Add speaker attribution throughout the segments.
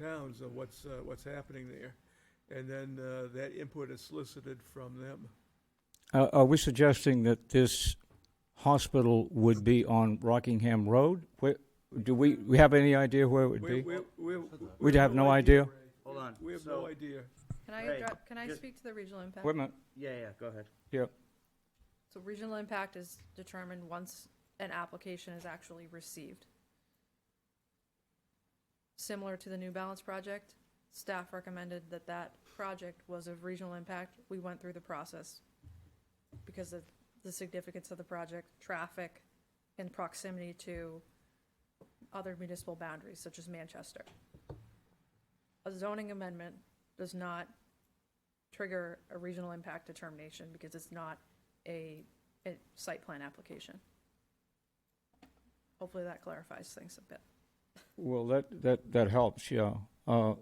Speaker 1: towns of what's, uh, what's happening there. And then uh, that input is solicited from them.
Speaker 2: Uh, Are we suggesting that this hospital would be on Rockingham Road? Where, do we, we have any idea where it would
Speaker 1: We
Speaker 2: be?
Speaker 1: we- we- we
Speaker 2: We'd have no idea?
Speaker 3: Hold on.
Speaker 1: We have
Speaker 3: So-
Speaker 1: no idea.
Speaker 4: Can I,
Speaker 3: Right.
Speaker 4: address- can I
Speaker 3: Just-
Speaker 4: speak to the regional impact?
Speaker 2: Wait a minute,
Speaker 3: Yeah, yeah, go ahead.
Speaker 2: yeah.
Speaker 4: So regional impact is determined once an application is actually received. Similar to the New Balance project, staff recommended that that project was of regional impact. We went through the process because of the significance of the project, traffic, and proximity to other municipal boundaries such as Manchester. A zoning amendment does not trigger a regional impact determination because it's not a, a site plan application. Hopefully that clarifies things a bit.
Speaker 2: Well, that, that, that helps, yeah. Uh,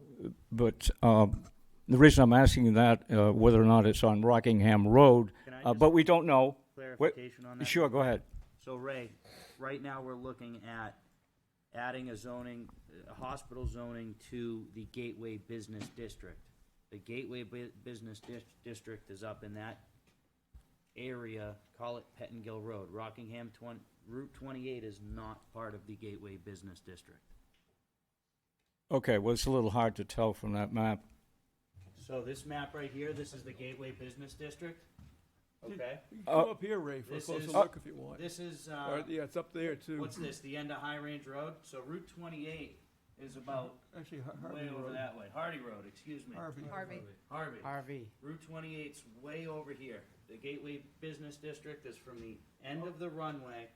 Speaker 2: But um, the reason I'm asking that, uh, whether or not it's on Rockingham Road,
Speaker 3: Can I
Speaker 2: uh,
Speaker 3: just-
Speaker 2: but we don't know.
Speaker 3: Clarification on that?
Speaker 2: Sure, go ahead.
Speaker 3: So Ray, right now we're looking at adding a zoning, a hospital zoning to the Gateway Business District. The Gateway Bu- Business Dis- District is up in that area, call it Pettingill Road. Rockingham twen- Route twenty-eight is not part of the Gateway Business District.
Speaker 2: Okay, well, it's a little hard to tell from that map.
Speaker 3: So this map right here, this is the Gateway Business District, okay?
Speaker 1: You can
Speaker 2: Uh,
Speaker 1: come up here, Ray, for a
Speaker 3: this
Speaker 1: closer
Speaker 3: is-
Speaker 1: look if you want.
Speaker 3: This is,
Speaker 1: Or,
Speaker 3: uh,
Speaker 1: yeah, it's up there too.
Speaker 3: what's this, the end of High Range Road? So Route twenty-eight is about
Speaker 1: Actually, Har- Harvey
Speaker 3: way over
Speaker 1: Road.
Speaker 3: that way. Hardy Road, excuse me.
Speaker 1: Harvey.
Speaker 4: Harvey,
Speaker 3: Harvey.
Speaker 5: RV.
Speaker 3: Route 28's way over here. The Gateway Business District is from the end of the runway,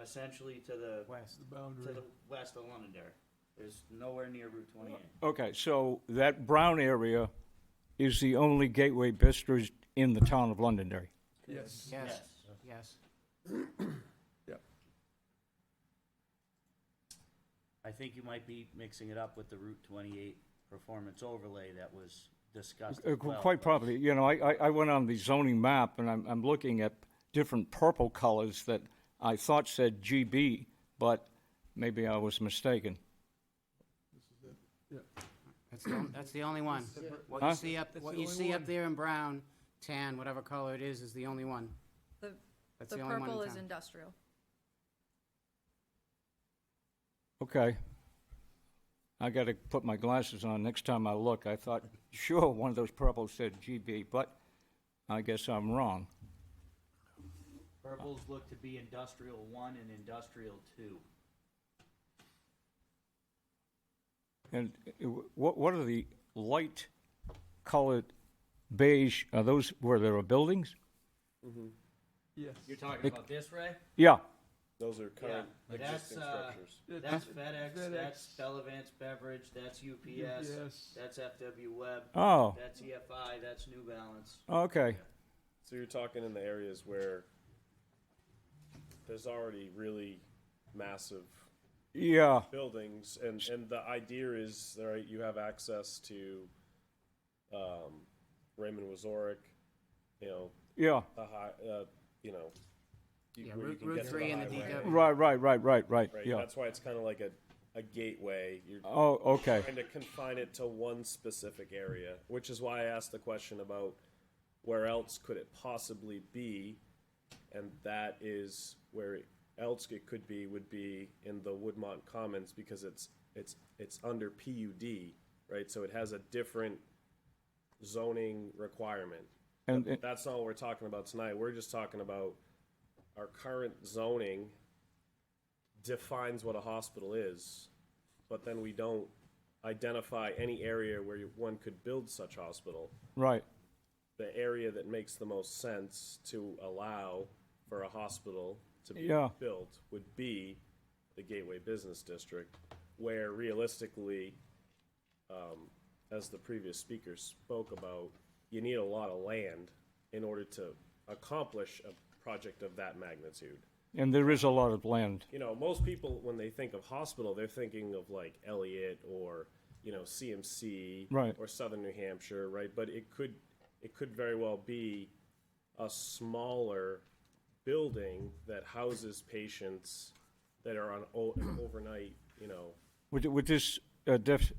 Speaker 3: essentially to the
Speaker 5: West.
Speaker 1: The
Speaker 3: to
Speaker 1: boundary.
Speaker 3: the west of Londonderry. There's nowhere near Route 28.
Speaker 2: Okay, so that brown area is the only gateway business in the town of Londonderry.
Speaker 1: Yes.
Speaker 5: Yes, yes.
Speaker 3: I think you might be mixing it up with the Route 28 performance overlay that was discussed.
Speaker 2: Uh,
Speaker 3: as
Speaker 2: qu-
Speaker 3: well,
Speaker 2: Quite
Speaker 3: but-
Speaker 2: probably, you know, I, I, I went on the zoning map and I'm, I'm looking at different purple colors that I thought said GB, but maybe I was mistaken.
Speaker 5: That's the, on- that's the only one. What
Speaker 2: Huh?
Speaker 5: you see up,
Speaker 1: That's
Speaker 5: what
Speaker 1: the
Speaker 5: you
Speaker 1: only
Speaker 5: see
Speaker 1: one.
Speaker 5: up there in brown, tan, whatever color it is, is the only one.
Speaker 4: the,
Speaker 5: That's
Speaker 4: the
Speaker 5: the only one
Speaker 4: purple
Speaker 5: in
Speaker 4: is
Speaker 5: town.
Speaker 4: industrial.
Speaker 2: Okay. I gotta put my glasses on next time I look. I thought, sure, one of those purples said GB, but I guess I'm wrong.
Speaker 3: Purples look to be Industrial 1 and Industrial 2.
Speaker 2: And uh, what, what are the light colored beige, are those where there are buildings?
Speaker 1: Yes.
Speaker 3: You're talking about this, Ray?
Speaker 2: Yeah,
Speaker 6: Those are current
Speaker 3: Yeah, that's,
Speaker 6: existing
Speaker 3: uh,
Speaker 6: structures.
Speaker 3: That's
Speaker 1: That's-
Speaker 3: FedEx,
Speaker 1: FedEx.
Speaker 3: that's Bellavance Beverage, that's UPS,
Speaker 1: UPS.
Speaker 3: that's FW Web,
Speaker 2: oh,
Speaker 3: that's EFI, that's New Balance.
Speaker 2: okay,
Speaker 6: So you're talking in the areas where there's already really massive
Speaker 2: yeah,
Speaker 6: buildings, and and the idea is right. You have access to um, Raymond Wazorek, you know
Speaker 2: yeah.
Speaker 6: the high, uh, you know, you,
Speaker 5: Yeah,
Speaker 6: where you
Speaker 5: Route-
Speaker 6: can
Speaker 5: Route
Speaker 6: get to
Speaker 5: 3 and the
Speaker 6: highway,
Speaker 5: DW.
Speaker 2: Right, right, right, right, right,
Speaker 6: Right.
Speaker 2: yeah.
Speaker 6: That's why it's kind of like a a gateway. You're
Speaker 2: Oh, okay,
Speaker 6: trying to confine it to one specific area, which is why I asked the question about where else could it possibly be, and that is where else it could be would be in the Woodmont Commons because it's it's it's under PUD, right? So it has a different zoning requirement.
Speaker 2: and, and-
Speaker 6: That's not what we're talking about tonight. We're just talking about our current zoning defines what a hospital is, but then we don't identify any area where you- one could build such hospital.
Speaker 2: right,
Speaker 6: The area that makes the most sense to allow for a hospital to be
Speaker 2: Yeah.
Speaker 6: built would be the Gateway Business District, where realistically, um, as the previous speaker spoke about, you need a lot of land in order to accomplish a project of that magnitude
Speaker 2: and there is a lot of land,
Speaker 6: you know, most people when they think of hospital, they're thinking of like Elliott or you know CMC
Speaker 2: Right.
Speaker 6: or Southern New Hampshire, right? But it could it could very well be a smaller building that houses patients that are on o- an overnight, you know,
Speaker 2: would, would this uh, dis-